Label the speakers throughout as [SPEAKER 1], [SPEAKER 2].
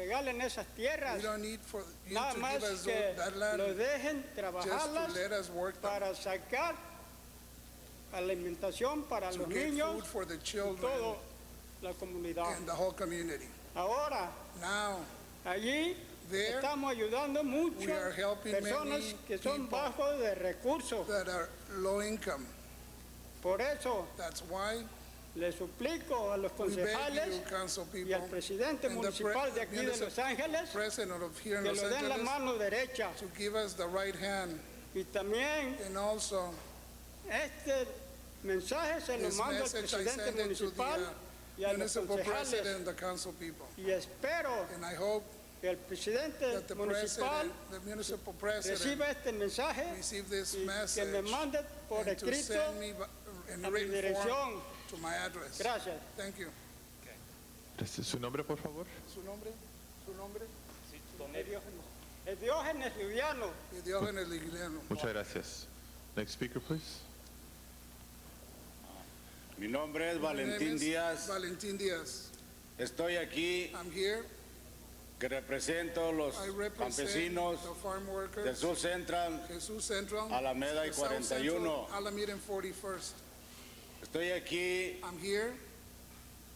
[SPEAKER 1] regalen esas tierras.
[SPEAKER 2] We don't need for you
[SPEAKER 1] Nada
[SPEAKER 2] to
[SPEAKER 1] más
[SPEAKER 2] give us
[SPEAKER 1] que
[SPEAKER 2] that land,
[SPEAKER 1] lo dejen
[SPEAKER 2] just to
[SPEAKER 1] trabajarlas
[SPEAKER 2] let us work them,
[SPEAKER 1] para sacar alimentación para
[SPEAKER 2] to
[SPEAKER 1] los
[SPEAKER 2] get food
[SPEAKER 1] niños
[SPEAKER 2] for the
[SPEAKER 1] y
[SPEAKER 2] children
[SPEAKER 1] toda la comunidad.
[SPEAKER 2] and the whole community.
[SPEAKER 1] Ahora,
[SPEAKER 2] Now,
[SPEAKER 1] allí
[SPEAKER 2] there
[SPEAKER 1] estamos ayudando mucho
[SPEAKER 2] we are helping
[SPEAKER 1] personas
[SPEAKER 2] many
[SPEAKER 1] que son
[SPEAKER 2] people.
[SPEAKER 1] bajos de recursos.
[SPEAKER 2] that are low income.
[SPEAKER 1] Por eso
[SPEAKER 2] That's why
[SPEAKER 1] le suplico a los
[SPEAKER 2] we beg
[SPEAKER 1] concejales
[SPEAKER 2] you, council
[SPEAKER 1] y al
[SPEAKER 2] people,
[SPEAKER 1] presidente
[SPEAKER 2] and the pre-
[SPEAKER 1] municipal de aquí de
[SPEAKER 2] municip-
[SPEAKER 1] Los Ángeles
[SPEAKER 2] president of here in
[SPEAKER 1] que
[SPEAKER 2] Los
[SPEAKER 1] lo den la
[SPEAKER 2] Angeles,
[SPEAKER 1] mano derecha
[SPEAKER 2] to give us the right hand
[SPEAKER 1] y también
[SPEAKER 2] and also
[SPEAKER 1] este mensaje se lo
[SPEAKER 2] This
[SPEAKER 1] mando al
[SPEAKER 2] message I
[SPEAKER 1] presidente
[SPEAKER 2] send it to the uh,
[SPEAKER 1] municipal y a los
[SPEAKER 2] municipal president
[SPEAKER 1] concejales
[SPEAKER 2] and the council people.
[SPEAKER 1] y espero
[SPEAKER 2] And I hope
[SPEAKER 1] que el presidente
[SPEAKER 2] that the
[SPEAKER 1] municipal
[SPEAKER 2] president, the municipal president,
[SPEAKER 1] reciba este mensaje
[SPEAKER 2] receive this
[SPEAKER 1] y que
[SPEAKER 2] message
[SPEAKER 1] me mande por
[SPEAKER 2] and to
[SPEAKER 1] escrito
[SPEAKER 2] send me
[SPEAKER 1] a
[SPEAKER 2] in
[SPEAKER 1] mi
[SPEAKER 2] written form
[SPEAKER 1] dirección.
[SPEAKER 2] to my address.
[SPEAKER 1] Gracias.
[SPEAKER 2] Thank you.
[SPEAKER 3] Gracias. Este ¿Su nombre, por favor?
[SPEAKER 2] ¿Su nombre? ¿Su nombre?
[SPEAKER 1] Diógenes. El Diógenes Liviano.
[SPEAKER 2] Diógenes Liguiliano.
[SPEAKER 3] Muchas gracias. Next speaker, please.
[SPEAKER 4] Mi nombre es
[SPEAKER 2] My name
[SPEAKER 4] Valentín
[SPEAKER 2] is
[SPEAKER 4] Díaz.
[SPEAKER 2] Valentín Díaz.
[SPEAKER 4] Estoy aquí
[SPEAKER 2] I'm here.
[SPEAKER 4] que represento a los
[SPEAKER 2] I represent
[SPEAKER 4] campesinos
[SPEAKER 2] the farm
[SPEAKER 4] del
[SPEAKER 2] workers.
[SPEAKER 4] Sur Central.
[SPEAKER 2] Jesús Central.
[SPEAKER 4] Alameda y
[SPEAKER 2] the South Central,
[SPEAKER 4] 41.
[SPEAKER 2] Alameda and 41st.
[SPEAKER 4] Estoy aquí
[SPEAKER 2] I'm here.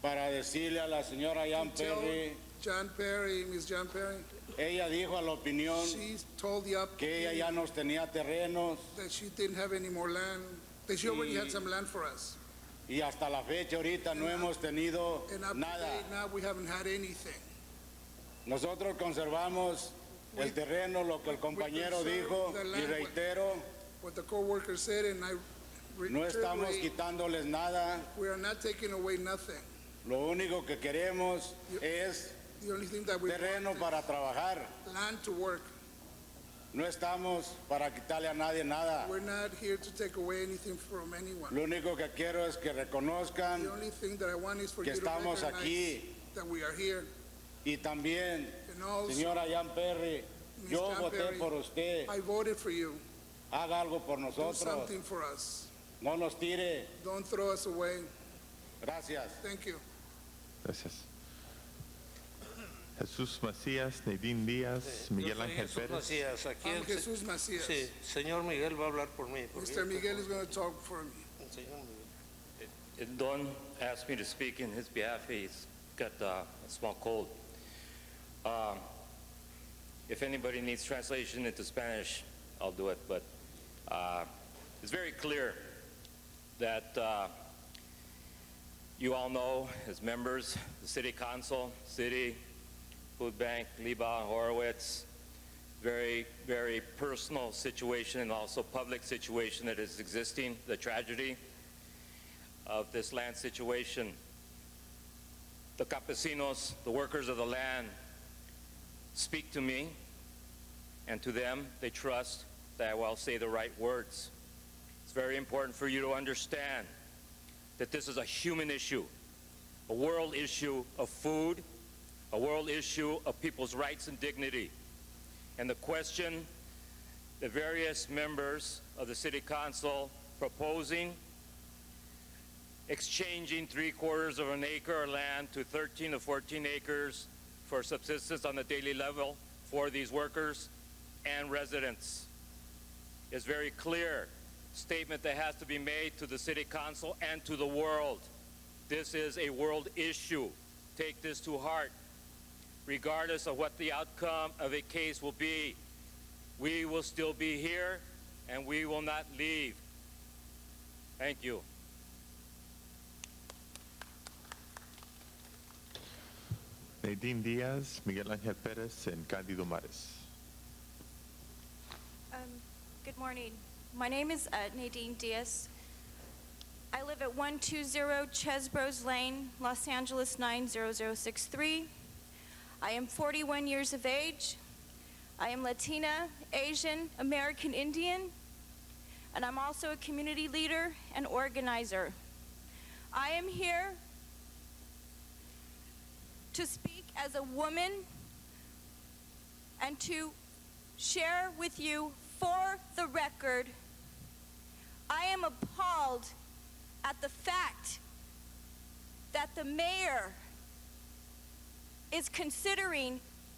[SPEAKER 4] para decirle a la señora Jan
[SPEAKER 2] Tell
[SPEAKER 4] Perry,
[SPEAKER 2] John Perry, Ms. John Perry.
[SPEAKER 4] ella dijo a la opinión
[SPEAKER 2] She told the up
[SPEAKER 4] que ella ya nos tenía terrenos
[SPEAKER 2] that she didn't have any more land, that she already had
[SPEAKER 4] Y-
[SPEAKER 2] some land for us.
[SPEAKER 4] y hasta la fecha ahorita no hemos tenido
[SPEAKER 2] And up to
[SPEAKER 4] nada.
[SPEAKER 2] date now, we haven't had anything.
[SPEAKER 4] Nosotros conservamos
[SPEAKER 2] We-
[SPEAKER 4] el terreno, lo que el compañero
[SPEAKER 2] preserve
[SPEAKER 4] dijo
[SPEAKER 2] the
[SPEAKER 4] y
[SPEAKER 2] land.
[SPEAKER 4] reitero,
[SPEAKER 2] What the co-worker said, and I re-
[SPEAKER 4] no estamos
[SPEAKER 2] reiterate,
[SPEAKER 4] quitándoles nada.
[SPEAKER 2] we are not taking away nothing.
[SPEAKER 4] Lo único que queremos
[SPEAKER 2] You-
[SPEAKER 4] es
[SPEAKER 2] The only thing that we
[SPEAKER 4] terreno
[SPEAKER 2] want
[SPEAKER 4] para trabajar.
[SPEAKER 2] is land to work.
[SPEAKER 4] No estamos para quitarle a nadie nada.
[SPEAKER 2] We're not here to take away anything from anyone.
[SPEAKER 4] Lo único que quiero es que
[SPEAKER 2] The
[SPEAKER 4] reconozcan
[SPEAKER 2] only thing that I want is for
[SPEAKER 4] que
[SPEAKER 2] you to
[SPEAKER 4] estamos
[SPEAKER 2] recognize
[SPEAKER 4] aquí
[SPEAKER 2] that we are here.
[SPEAKER 4] y también,
[SPEAKER 2] And also,
[SPEAKER 4] señora Jan Perry,
[SPEAKER 2] Miss
[SPEAKER 4] yo
[SPEAKER 2] Jan
[SPEAKER 4] voté
[SPEAKER 2] Perry,
[SPEAKER 4] por usted.
[SPEAKER 2] I voted for you.
[SPEAKER 4] Haga algo por
[SPEAKER 2] Do
[SPEAKER 4] nosotros.
[SPEAKER 2] something for us.
[SPEAKER 4] No nos tire.
[SPEAKER 2] Don't throw us away.
[SPEAKER 4] Gracias.
[SPEAKER 2] Thank you.
[SPEAKER 3] Gracias. Jesús Macías, Neidín Díaz, Miguel
[SPEAKER 5] Yo soy
[SPEAKER 3] Ángel
[SPEAKER 5] Jesús
[SPEAKER 3] Pérez.
[SPEAKER 5] Macías, aquí
[SPEAKER 2] I'm
[SPEAKER 5] el se-
[SPEAKER 2] Ah, Jesús Macias.
[SPEAKER 5] Sí, señor Miguel va a hablar por mí. porque
[SPEAKER 2] Mr.
[SPEAKER 5] yo-
[SPEAKER 2] Miguel is going to talk for me.
[SPEAKER 5] el señor Miguel.
[SPEAKER 6] Don asked me to speak in his behalf. He's got uh, a small cold. Um, If anybody needs translation into Spanish, I'll do it, but uh, it's very clear that uh, you all know, as members, the city council, city, food bank, Liba, Horowitz, very, very personal situation and also public situation that is existing, the tragedy of this land situation. The campesinos, the workers of the land, speak to me, and to them, they trust that I will say the right words. It's very important for you to understand that this is a human issue, a world issue of food, a world issue of people's rights and dignity. And the question the various members of the City Council proposing exchanging three quarters of an acre of land to 13 to 14 acres for subsistence on the daily level for these workers and residents. It's very clear statement that has to be made to the city council and to the world. This is a world issue. Take this to heart. Regardless of what the outcome of a case will be, we will still be here and we will not leave. Thank you.
[SPEAKER 3] Neidín Díaz, Miguel Ángel Pérez, en Cándido Mares.
[SPEAKER 7] Um, Good morning. My name is uh, Nadine Diaz. I live at 120 Chesbros Lane, Los Angeles 90063. I am 41 years of age. I am Latina, Asian, American Indian, and I'm also a community leader and organizer. I am here to speak as a woman and to share with you for the record I am appalled at the fact that the mayor is considering